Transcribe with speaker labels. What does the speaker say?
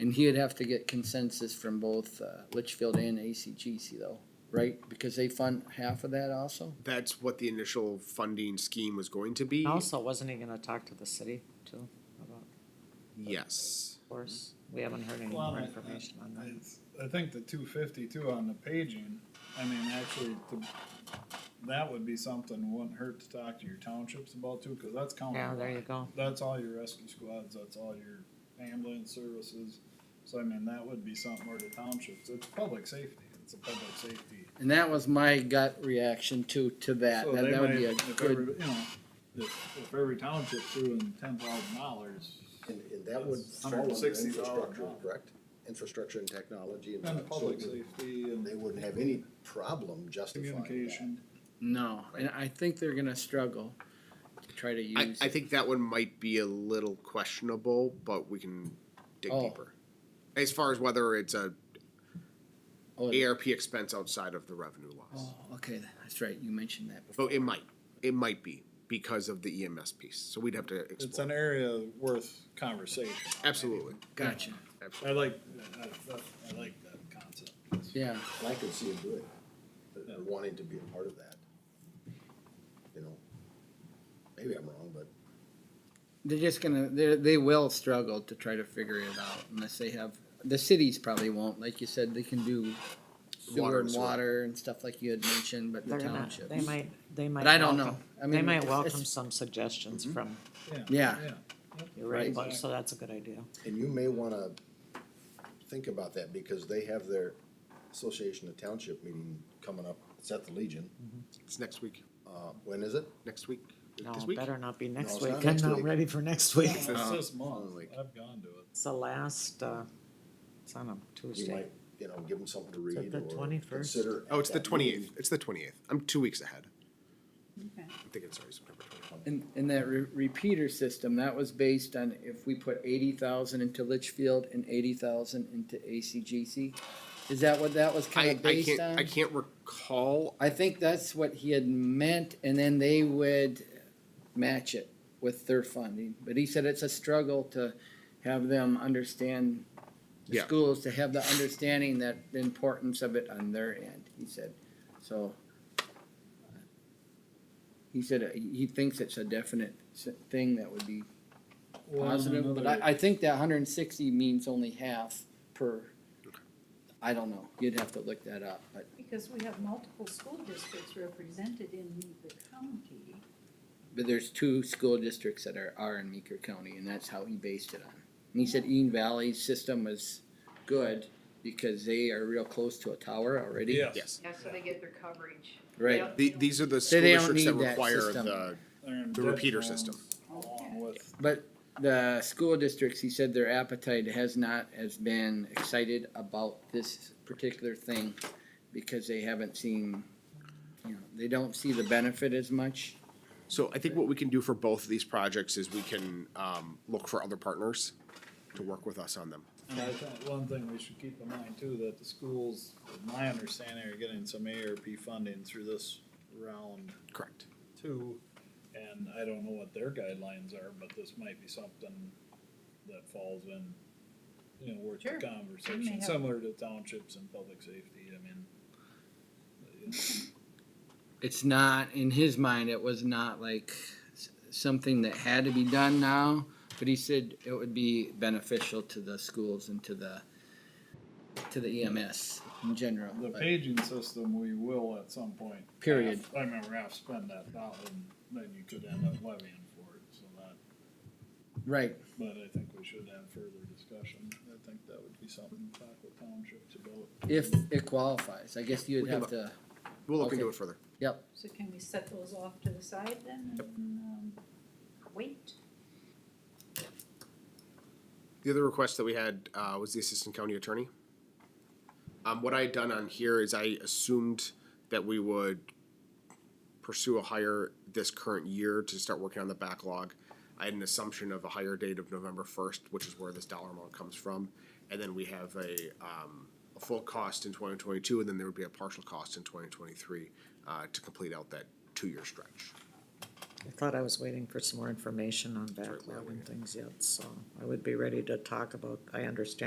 Speaker 1: And he would have to get consensus from both uh, Litchfield and ACGC though, right? Because they fund half of that also?
Speaker 2: That's what the initial funding scheme was going to be.
Speaker 3: Also, wasn't he gonna talk to the city too about
Speaker 2: Yes.
Speaker 3: course? We haven't heard any
Speaker 4: Well,
Speaker 3: more
Speaker 4: I-
Speaker 3: information on that.
Speaker 4: It's- I think the two fifty two on the paging, I mean, actually, the- that would be something, wouldn't hurt to talk to your townships about too, cause that's county.
Speaker 3: Yeah, there you go.
Speaker 4: That's all your rescue squads, that's all your ambulance services, so I mean, that would be something where the townships, it's public safety, it's a public safety.
Speaker 1: And that was my gut reaction to, to that.
Speaker 4: So
Speaker 1: That
Speaker 4: they
Speaker 1: that would
Speaker 4: might-
Speaker 1: be a
Speaker 4: if every-
Speaker 1: good,
Speaker 4: You know, if, if every township threw in ten thousand dollars,
Speaker 5: And, and that would
Speaker 4: That's
Speaker 5: fall under
Speaker 4: 160,000.
Speaker 5: infrastructure, correct? Infrastructure and technology and.
Speaker 4: and public
Speaker 5: so
Speaker 4: safety and
Speaker 5: They wouldn't have any problem justifying that.
Speaker 4: communication.
Speaker 1: no, and I think they're gonna struggle to try to
Speaker 2: I,
Speaker 1: use.
Speaker 2: I think that one might be a little questionable, but we can dig
Speaker 1: Oh.
Speaker 2: deeper. As far as whether it's a
Speaker 1: Oh,
Speaker 2: ARP expense outside of the revenue loss.
Speaker 1: oh, Okay, that's right, you mentioned that before.
Speaker 2: But it might, it might be because of the EMS piece. So we'd have to
Speaker 4: It's
Speaker 2: explore.
Speaker 4: an area worth conversation.
Speaker 2: Absolutely.
Speaker 1: Gotcha,
Speaker 4: I like, I, I- I like that concept.
Speaker 1: yeah.
Speaker 5: And I could see him doing, it, uh, wanting to be a part of that. You know, maybe I'm wrong, but
Speaker 1: They're just gonna, they, they will struggle to try to figure it out unless they have, the cities probably won't, like you said, they can do
Speaker 2: Water
Speaker 1: sewer
Speaker 2: and
Speaker 1: and
Speaker 2: sewer.
Speaker 1: water and stuff like you had mentioned, but the
Speaker 3: They're gonna,
Speaker 1: townships.
Speaker 3: they might, they might.
Speaker 1: But I don't know,
Speaker 3: welcome-
Speaker 1: I mean.
Speaker 3: They might
Speaker 1: it's-
Speaker 3: welcome
Speaker 1: it's- Mm-hmm.
Speaker 3: some suggestions from
Speaker 1: Yeah.
Speaker 3: your right,
Speaker 4: Right.
Speaker 3: so that's a good idea.
Speaker 5: And you may wanna think about that, because they have their Association of Township meeting coming up, it's at the Legion,
Speaker 2: It's next week,
Speaker 5: uh, when is it?
Speaker 2: next week,
Speaker 3: No,
Speaker 2: this week.
Speaker 3: better not be next
Speaker 5: it's
Speaker 3: week.
Speaker 5: not
Speaker 3: I'm
Speaker 5: next
Speaker 3: not
Speaker 5: week.
Speaker 3: ready for next week.
Speaker 4: It's this month,
Speaker 2: like-
Speaker 4: I've gone to it.
Speaker 3: It's the last, uh, it's on a
Speaker 5: You
Speaker 3: Tuesday.
Speaker 5: might, you know, give them something to read
Speaker 3: the
Speaker 5: or
Speaker 3: 21st?
Speaker 5: consider.
Speaker 2: Oh, it's the
Speaker 5: at that meeting.
Speaker 2: twenty-eighth. It's the twenty-eighth. I'm two weeks ahead.
Speaker 6: Okay.
Speaker 2: I'm thinking, sorry, September twenty-eighth.
Speaker 1: And, and that re- repeater system, that was based on if we put eighty thousand into Litchfield and eighty thousand into ACGC? Is that what that was
Speaker 2: I,
Speaker 1: kinda
Speaker 2: I
Speaker 1: based
Speaker 2: can't,
Speaker 1: on?
Speaker 2: I can't recall.
Speaker 1: I think that's what he had meant, and then they would match it with their funding. But he said it's a struggle to have them understand, the
Speaker 2: Yeah.
Speaker 1: schools to have the understanding that the importance of it on their end, he said, so. He said he- he thinks it's a definite s- thing that would be
Speaker 4: Well, and
Speaker 1: positive, but
Speaker 4: another-
Speaker 1: I, I think that hundred and sixty means only half per. I don't know, you'd have to look that up, but
Speaker 6: Because we have multiple school districts represented in the county.
Speaker 1: But there's two school districts that are, are in Meeker County, and that's how he based it on. And he said Ean Valley's system was good because they are real close to a tower already.
Speaker 2: Yes.
Speaker 7: Yeah, so they get their coverage.
Speaker 1: Right.
Speaker 7: Yep.
Speaker 2: The, these are the
Speaker 1: So
Speaker 2: school
Speaker 1: they don't
Speaker 2: districts that
Speaker 1: need that
Speaker 2: require
Speaker 1: system.
Speaker 2: the,
Speaker 4: They're in
Speaker 2: the repeater
Speaker 4: dead zones
Speaker 2: system.
Speaker 4: Along with,
Speaker 1: But the school districts, he said their appetite has not, has been excited about this particular thing because they haven't seen, you know, they don't see the benefit as much.
Speaker 2: So I think what we can do for both of these projects is we can, um, look for other partners to work with us on them.
Speaker 4: and I think one thing we should keep in mind too, that the schools, in my understanding, are getting some ARP funding through this round
Speaker 2: Correct.
Speaker 4: two. And I don't know what their guidelines are, but this might be something that falls in, you know, worth
Speaker 6: Sure.
Speaker 4: the
Speaker 6: They may
Speaker 4: conversation,
Speaker 6: have-
Speaker 4: similar to townships and public safety, I mean. you know.
Speaker 1: it's not in his mind it was not like s- something that had to be done now but he said it would be beneficial to the schools and to the to the ems in general
Speaker 4: The
Speaker 1: but-
Speaker 4: paging system, we will at some point.
Speaker 1: Period.
Speaker 4: I remember half spend that thousand, then you could end up levying for it, so that,
Speaker 1: right
Speaker 4: but I think we should have further discussion. I think that would be something to talk with townships about.
Speaker 1: if it qualifies i guess you'd
Speaker 2: We can
Speaker 1: have to
Speaker 2: We'll look
Speaker 1: Okay.
Speaker 2: into it further.
Speaker 1: yep
Speaker 6: So can we set those off to the side then and, um, wait?
Speaker 2: The other request that we had uh, was the assistant county attorney. Um, what I had done on here is I assumed that we would pursue a hire this current year to start working on the backlog. I had an assumption of a hire date of November first, which is where this dollar amount comes from. And then we have a, um, a full cost in twenty twenty-two, and then there would be a partial cost in twenty twenty-three, uh, to complete out that two-year stretch.
Speaker 3: I thought I was waiting for some more information on
Speaker 2: right, we're
Speaker 3: backlog and
Speaker 2: waiting.
Speaker 3: things yet, so I would be ready to talk about, I understand